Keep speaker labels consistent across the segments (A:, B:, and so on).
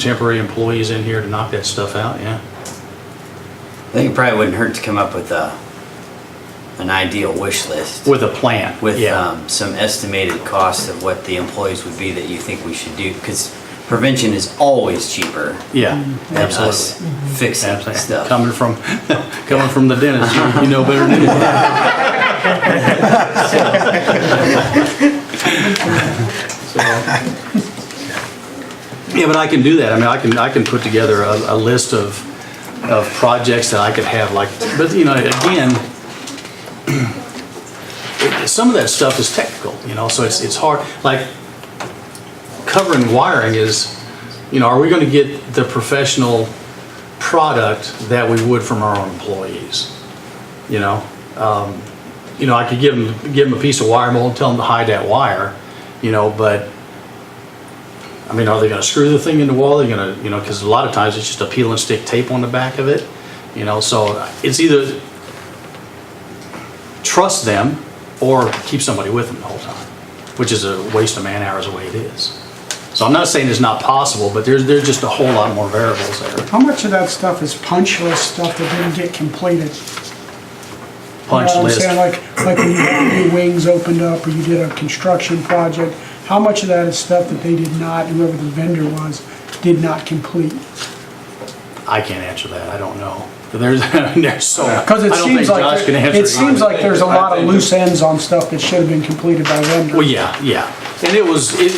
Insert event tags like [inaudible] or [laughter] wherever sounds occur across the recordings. A: temporary employees in here to knock that stuff out, yeah.
B: I think it probably wouldn't hurt to come up with a, an ideal wish list.
A: With uh, a plan,
B: With
A: yeah.
B: um, some estimated costs of what the employees would be that you think we should do, because prevention is always cheaper
A: Yeah,
B: than us
A: absolutely.
B: fixing
A: Absolutely.
B: stuff.
A: Coming from, [laughs] coming from the dentist, you- you know better than anyone. So- [laughs] Yeah, but I can do that. I mean, I can, I can put together a, a list of, of projects that I could have like, but you know, again, [clears throat] it- some of that stuff is technical, you know, so it's, it's hard, like covering wiring is, you know, are we gonna get the professional product that we would from our own employees. You know, Um, you know, I could give them, give them a piece of wire mold and tell them to hide that wire, you know, but, I mean, are they gonna screw the thing in the wall? They're gonna, you know, because a lot of times it's just a peel and stick tape on the back of it, you know, so uh, it's either trust them or keep somebody with them the whole time, which is a waste of man hours the way it is. So I'm not saying it's not possible, but there's, there's just a whole lot more variables there.
C: How much of that stuff is punch list stuff that didn't get completed?
A: punch
C: You know what I'm
A: list.
C: saying? Like, like when you had new wings opened up, or you did a construction project, how much of that is stuff that they did not, whoever the vendor was, did not complete?
A: I can't answer that. I don't know. There's, [laughs] there's so.
C: Because it
A: I don't
C: seems
A: think Josh
C: like,
A: can
C: there-
A: answer
C: it seems like there's a
A: I
C: lot of
A: think-
C: loose ends on stuff that should have been completed by vendor.
A: Well, yeah, yeah. And it was, it,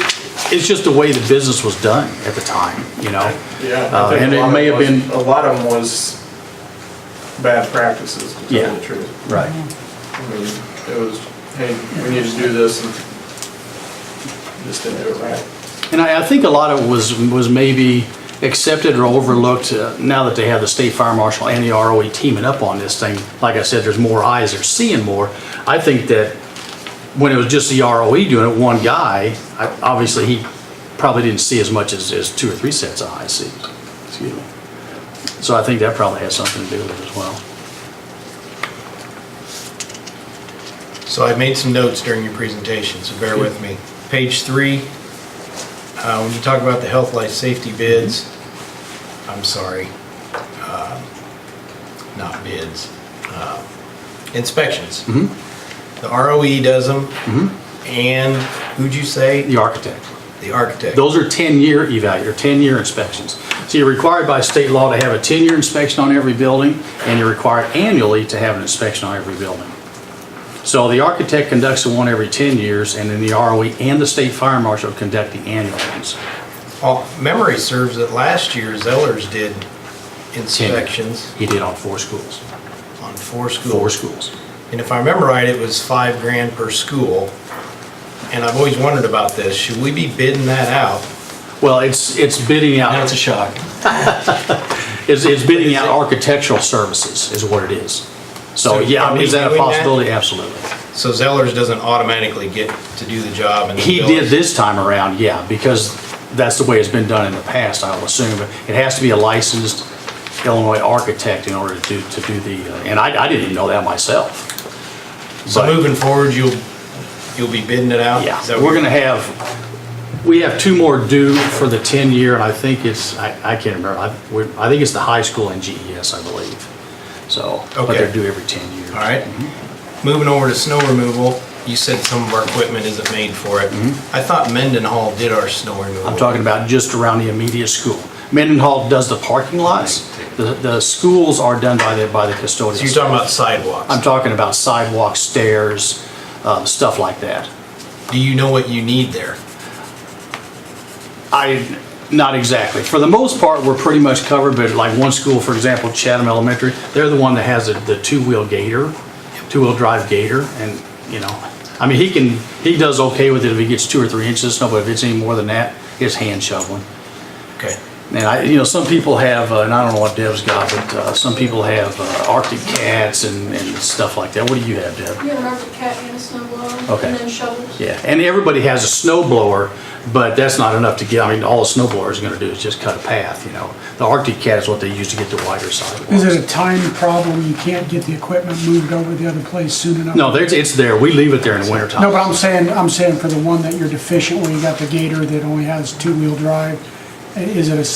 A: it's just the way the business was done at the time, you know?
D: Yeah. I
A: Uh,
D: think
A: And
D: a
A: it
D: lot
A: may have
D: of
A: been,
D: was- A lot of them was bad practices, to
A: Yeah.
D: tell the truth.
A: right.
D: I mean, it was, hey, we need to do this, and just didn't do it right.
A: And I, I think a lot of it was, was maybe accepted or overlooked uh, now that they have the state fire marshal and the ROE teaming up on this thing. Like I said, there's more eyes, they're seeing more. I think that when it was just the ROE doing it, one guy, I- obviously he probably didn't see as much as, as two or three sets of eyes see. Excuse me. So I think that probably has something to do with it as well.
E: So I made some notes during your presentation, so bear with me. Page three, uh, when you talk about the health, life, safety bids, I'm sorry, uh, not bids, uh, inspections. The ROE does them, and who'd you say?
A: The architect.
E: The architect.
A: Those are 10-year evalu, or 10-year inspections. So you're required by state law to have a 10-year inspection on every building, and you're required annually to have an inspection on every building. So the architect conducts the one every 10 years, and then the ROE and the state fire marshal conduct the annual ones.
E: All- Memory serves that last year Zellers did inspections
A: He did on four schools,
E: on four schools.
A: four schools.
E: And if I remember right, it was five grand per school. And I've always wondered about this, should we be bidding that out?
A: Well, it's, it's bidding out,
E: That's a shock.
A: [laughs] it's it's bidding out architectural services is what it is. So,
E: So
A: yeah, I mean, is
E: are
A: that a
E: we doing that?
A: possibility? Absolutely.
E: So Zellers doesn't automatically get to do the job and.
A: He did this time around, yeah, because that's the way it's been done in the past, I would assume. But It has to be a licensed Illinois architect in order to, do to do the, uh, and I, I didn't even know that myself.
E: So moving forward, you'll, you'll be bidding it out?
A: Yeah,
E: Is that
A: we're
E: what-
A: gonna have, we have two more due for the 10-year, and I think it's, I, I can't remember. I, we're- I think it's the high school and GES, I believe. So, but
E: Okay.
A: they're due every 10 years.
E: All right.
A: Mm-hmm.
E: Moving over to snow removal, you said some of our equipment isn't made for it. I thought Mendenhall did our snow removal.
A: Mm-hmm. I'm talking about just around the immediate school. Mendenhall does the parking lots. The, the schools are done by the, by the custodians.
E: So you're talking about sidewalks?
A: I'm talking about sidewalks, stairs, um, stuff like that.
E: Do you know what you need there?
A: I, not exactly. For the most part, we're pretty much covered, but like one school, for example, Chatham Elementary, they're the one that has the, the two-wheel gator, two-wheel drive gator, and, you know, I mean, he can, he does okay with it if he gets two or three inches of snow, but if it's any more than that, it's hand shoveling.
E: Okay.
A: And I, you know, some people have, uh, and I don't know what Deb's got, but, uh, some people have uh, Arctic cats and, and stuff like that. What do you have, Deb?
F: You have an Arctic cat and a snow blower,
A: Okay.
F: and then shovels.
A: Yeah, and everybody has a snow blower, but that's not enough to get, I mean, all a snow blower is gonna do is just cut a path, you know? The Arctic Cat is what they use to get the wider
C: Is
A: sidewalks.
C: it a time problem? You can't get the equipment moved over the other place soon enough?
A: No, there's, it's there, we leave it there in the wintertime.
C: No, but I'm saying, I'm saying for the one that you're deficient, where you got the gator that only has two-wheel drive, i- is it a